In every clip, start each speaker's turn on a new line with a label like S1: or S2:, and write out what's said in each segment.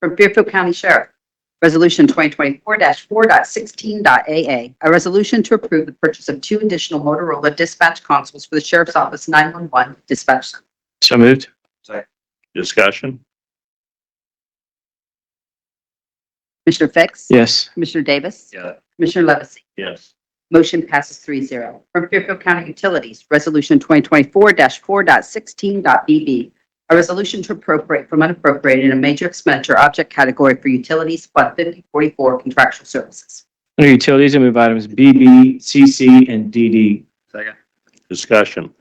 S1: from Fairfield County Sheriff. Resolution 2024-4.16.a.a. A resolution to approve the purchase of two additional Motorola dispatch consoles for the Sheriff's Office 911 dispatch. center.
S2: So moved.
S3: Second.
S4: discussion,
S1: Commissioner Fix?
S2: Yes.
S1: Commissioner Davis?
S3: Yeah.
S1: Commissioner Levesey?
S4: yes,
S1: Motion passes three zero. From Fairfield County Utilities, Resolution 2024-4.16.b.b. A resolution to appropriate from unappropriated in a major expenditure object category for utilities, Fund 5044 contractual services.
S2: Under Utilities, I move items BB, CC, and DD.
S3: Second.
S4: discussion,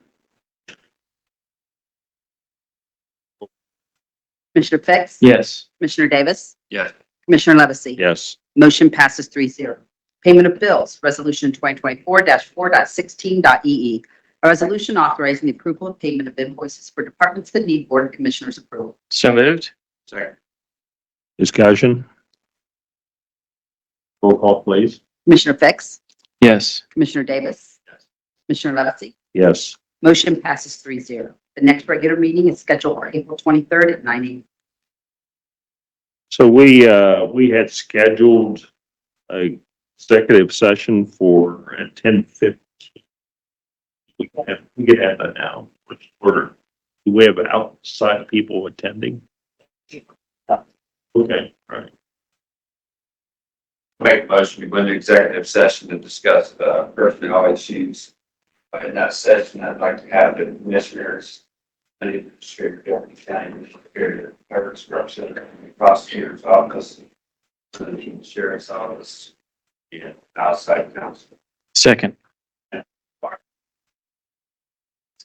S1: Commissioner Fix?
S2: Yes.
S1: Commissioner Davis?
S3: Yes.
S1: Commissioner Levesey?
S4: yes,
S1: Motion passes three zero. Payment of bills, Resolution 2024-4.16.e.e. E A resolution authorizing the approval and payment of invoices for departments that need Board of Commissioners approval.
S2: So moved.
S3: Second.
S4: discussion. Roll call, please.
S1: Commissioner Fix?
S2: Yes.
S1: Commissioner Davis?
S3: Yes.
S1: Commissioner Levesey?
S4: Yes,
S1: Motion passes three zero. The next regular meeting is scheduled for April 23rd at 9 a.m.
S4: so we, uh, we had scheduled a executive session for at ten fifteen. We can have, we could have that now, which order, do we have outside people attending? Okay, all right,
S3: Make a motion, we went to executive session to discuss uh, personnel issues. Uh, In that session, I'd like to have the commissioners, and the administrator, deputy county, superior, parish representative, prosecutor's office, and the sheriff's office, and outside counsel.
S2: Second.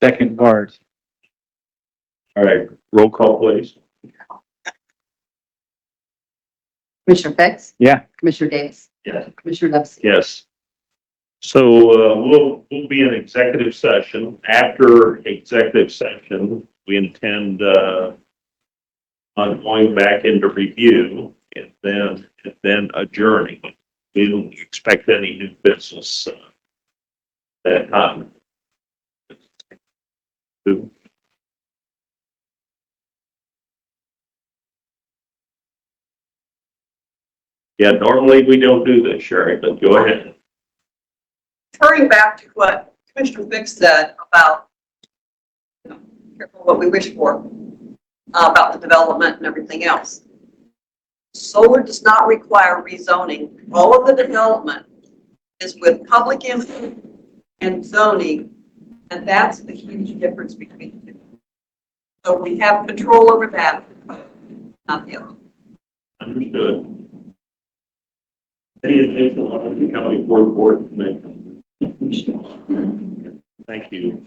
S2: Second part.
S4: all right, roll call, please.
S1: Commissioner Fix?
S2: Yeah.
S1: Commissioner Davis?
S4: Yes.
S1: Commissioner Levesey?
S4: Yes. So uh, we'll, we'll be in executive session. After executive session, we intend uh, on going back into review and then, and then adjourning. We don't expect any new business uh, that time. Yeah, normally we don't do this, Sherry, but go ahead.
S5: Turning back to what Commissioner Fix said about, you know, careful what we wish for, uh, about the development and everything else. Solar does not require rezoning. All of the development is with public input and zoning, and that's the huge difference between the two. So we have control over that, not the other.
S4: Understood. Any additional on the county board board? member? Thank you.